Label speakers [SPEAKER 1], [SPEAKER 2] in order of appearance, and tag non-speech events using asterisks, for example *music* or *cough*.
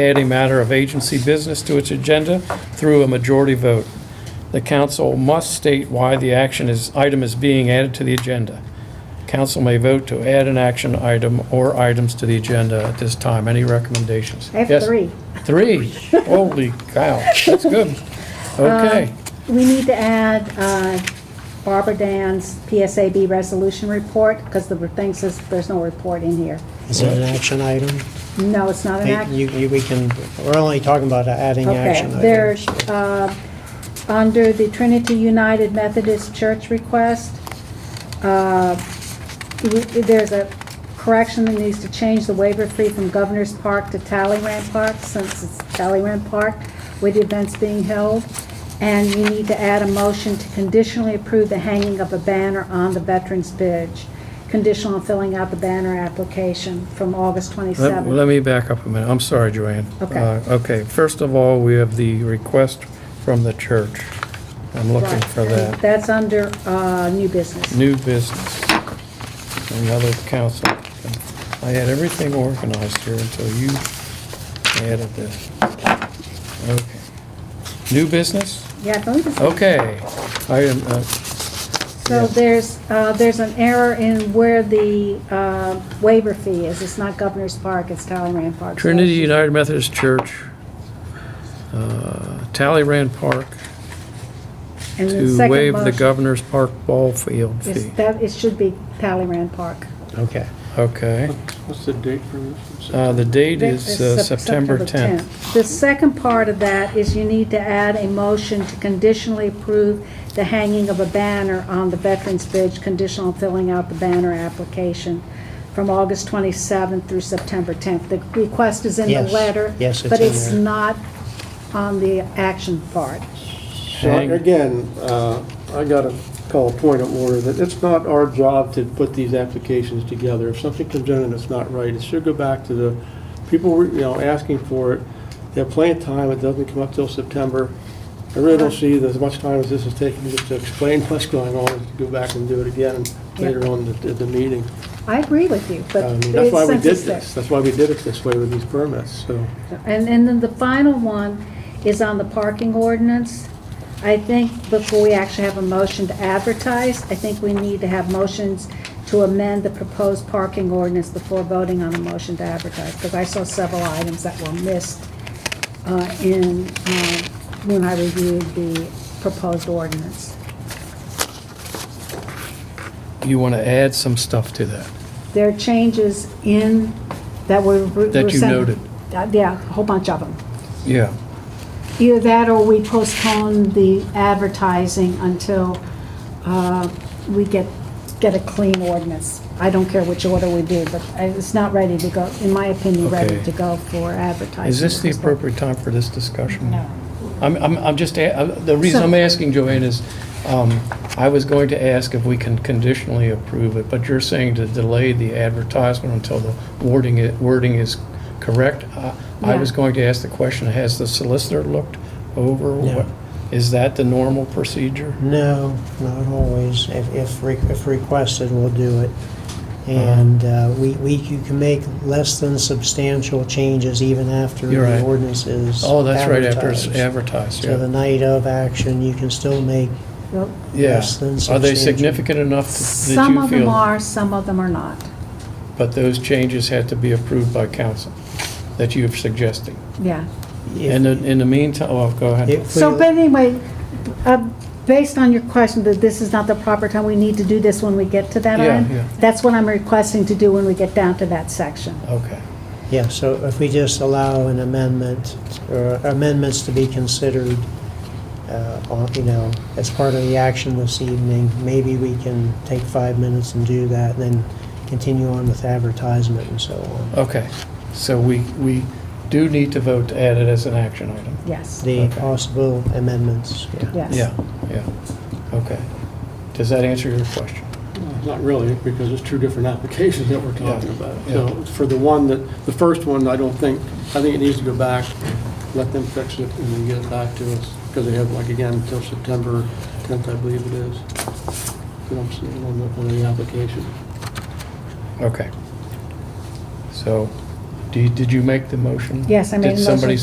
[SPEAKER 1] add a matter of agency business to its agenda through a majority vote. The council must state why the action is, item is being added to the agenda. Council may vote to add an action item or items to the agenda at this time. Any recommendations?
[SPEAKER 2] I have
[SPEAKER 1] Yes.
[SPEAKER 2] three.
[SPEAKER 1] Three? Holy cow, that's
[SPEAKER 2] *laughs*
[SPEAKER 1] good.
[SPEAKER 2] Uh,
[SPEAKER 1] Okay.
[SPEAKER 2] We need to add uh, Barbara Dan's PSAB resolution report, because the thing says there's no report in here.
[SPEAKER 3] Is that an action item?
[SPEAKER 2] No, it's not an act.
[SPEAKER 3] You, you, we can, we're only talking about adding
[SPEAKER 2] Okay,
[SPEAKER 3] action
[SPEAKER 2] there's,
[SPEAKER 3] items.
[SPEAKER 2] uh, under the Trinity United Methodist Church request, uh, we- there's a correction that needs to change the waiver fee from Governor's Park to Talleyrand Park, since it's Talleyrand Park with the events being held. And you need to add a motion to conditionally approve the hanging of a banner on the Veterans Bridge, conditional on filling out the banner application from August
[SPEAKER 1] Let
[SPEAKER 2] 27th.
[SPEAKER 1] let me back up a minute. I'm sorry, Joanne.
[SPEAKER 2] Okay.
[SPEAKER 1] Uh, Okay, first of all, we have the request from the church. I'm looking
[SPEAKER 2] Right.
[SPEAKER 1] for that.
[SPEAKER 2] That's under uh, new business.
[SPEAKER 1] New business, another council. I had everything organized here until you added this. Okay. New business?
[SPEAKER 2] Yeah, I believe it's-
[SPEAKER 1] Okay. I am, uh,
[SPEAKER 2] so there's, uh, there's an error in where the uh, waiver fee is. It's not Governor's Park, it's Talleyrand Park. So
[SPEAKER 1] Trinity United Methodist Church, uh, Talleyrand Park,
[SPEAKER 2] and the
[SPEAKER 1] to
[SPEAKER 2] second
[SPEAKER 1] waive the
[SPEAKER 2] motion
[SPEAKER 1] Governor's Park ball field
[SPEAKER 2] is
[SPEAKER 1] fee.
[SPEAKER 2] that- It should be Talleyrand Park.
[SPEAKER 3] Okay.
[SPEAKER 1] Okay.
[SPEAKER 4] What's the date for this?
[SPEAKER 1] Uh, The date is uh,
[SPEAKER 2] Sep-
[SPEAKER 1] September 10th.
[SPEAKER 2] The second part of that is you need to add a motion to conditionally approve the hanging of a banner on the Veterans Bridge, conditional on filling out the banner application from August 27th through September 10th. The request is in the
[SPEAKER 3] Yes.
[SPEAKER 2] letter.
[SPEAKER 3] Yes, it's
[SPEAKER 2] But
[SPEAKER 3] in
[SPEAKER 2] it's
[SPEAKER 3] there.
[SPEAKER 2] not on the action part.
[SPEAKER 4] So again, uh, I got to call point of order that it's not our job to put these applications together. If something comes in and it's not right, it should go back to the people, were, you know, asking for it. They have plenty of time, it doesn't come up till September. I really don't see that as much time as this is taking just to explain *laughs* what's going on, and go back and do it again later on at the- at the meeting.
[SPEAKER 2] I agree with you, but
[SPEAKER 4] Uh, I mean, That's
[SPEAKER 2] it's
[SPEAKER 4] why we
[SPEAKER 2] since
[SPEAKER 4] did
[SPEAKER 2] it's there.
[SPEAKER 4] this, that's why we did it this way with these permits, so.
[SPEAKER 2] And, and then the final one is on the parking ordinance. I think before we actually have a motion to advertise, I think we need to have motions to amend the proposed parking ordinance before voting on a motion to advertise, because I saw several items that were missed uh, in, uh, when I reviewed the proposed ordinance.
[SPEAKER 1] You want to add some stuff to that?
[SPEAKER 2] There are changes in, that were. Uh,
[SPEAKER 1] That you noted.
[SPEAKER 2] Yeah, a whole bunch of them.
[SPEAKER 1] Yeah.
[SPEAKER 2] Either that or we postpone the advertising until uh, we get, get a clean ordinance. I don't care which order we do, but I- it's not ready to go, in my opinion, ready
[SPEAKER 1] Okay.
[SPEAKER 2] to go for advertising.
[SPEAKER 1] Is this the appropriate time for this discussion? No. I'm, I'm, I'm just, a- I'm- the reason I'm asking, Joanne, is um, I was going to ask if we can conditionally approve it, but you're saying to delay the advertisement until the wording, i- wording is correct. Uh, I was
[SPEAKER 2] Yeah.
[SPEAKER 1] going to ask the question, has the solicitor looked over? what- Is that the normal procedure?
[SPEAKER 3] No, not always. If, if, re- if requested, we'll do it. And
[SPEAKER 1] Uh-huh.
[SPEAKER 3] uh, we, we, you can make less than substantial changes even after
[SPEAKER 1] You're right.
[SPEAKER 3] the ordinance is
[SPEAKER 1] Oh, that's right, after it's
[SPEAKER 3] advertised.
[SPEAKER 1] advertised,
[SPEAKER 3] So the
[SPEAKER 1] yeah.
[SPEAKER 3] night of action, you can still make
[SPEAKER 2] Well,
[SPEAKER 1] Yeah.
[SPEAKER 3] less than
[SPEAKER 1] Are they
[SPEAKER 3] substantial.
[SPEAKER 1] significant enough that
[SPEAKER 2] Some
[SPEAKER 1] you
[SPEAKER 2] of them
[SPEAKER 1] feel?
[SPEAKER 2] are, some of them are not.
[SPEAKER 1] But those changes had to be approved by council that you're suggesting?
[SPEAKER 2] Yeah.
[SPEAKER 3] if-
[SPEAKER 1] And in in the meantime, oh, go ahead.
[SPEAKER 3] if we-
[SPEAKER 2] So, but anyway, uh, based on your question that this is not the proper time, we need to do this when we get to that
[SPEAKER 1] Yeah,
[SPEAKER 2] end.
[SPEAKER 1] yeah.
[SPEAKER 2] That's what I'm requesting to do when we get down to that section.
[SPEAKER 1] Okay.
[SPEAKER 3] Yeah, so if we just allow an amendment, or amendments to be considered, uh, on- you know, as part of the action this evening, maybe we can take five minutes and do that, and then continue on with advertisement and so on.
[SPEAKER 1] Okay, so we, we do need to vote to add it as an action item.
[SPEAKER 2] Yes,
[SPEAKER 3] The
[SPEAKER 1] Okay.
[SPEAKER 3] possible amendments, yeah.
[SPEAKER 2] yes.
[SPEAKER 1] Yeah, yeah, okay. Does that answer your question?
[SPEAKER 4] Not really, because it's two different applications that we're talking
[SPEAKER 1] Yeah.
[SPEAKER 4] about.
[SPEAKER 1] Yeah.
[SPEAKER 4] So for the one that, the first one, I don't think, I think it needs to go back, let them fix it and then get it back to us. Because they have, like, again, until September 10th, I believe it is. But I'm seeing on the, on the application.
[SPEAKER 1] Okay. So
[SPEAKER 2] Do you- Did you make the motion?
[SPEAKER 1] Yes, I made a
[SPEAKER 2] Did
[SPEAKER 1] motion.
[SPEAKER 2] somebody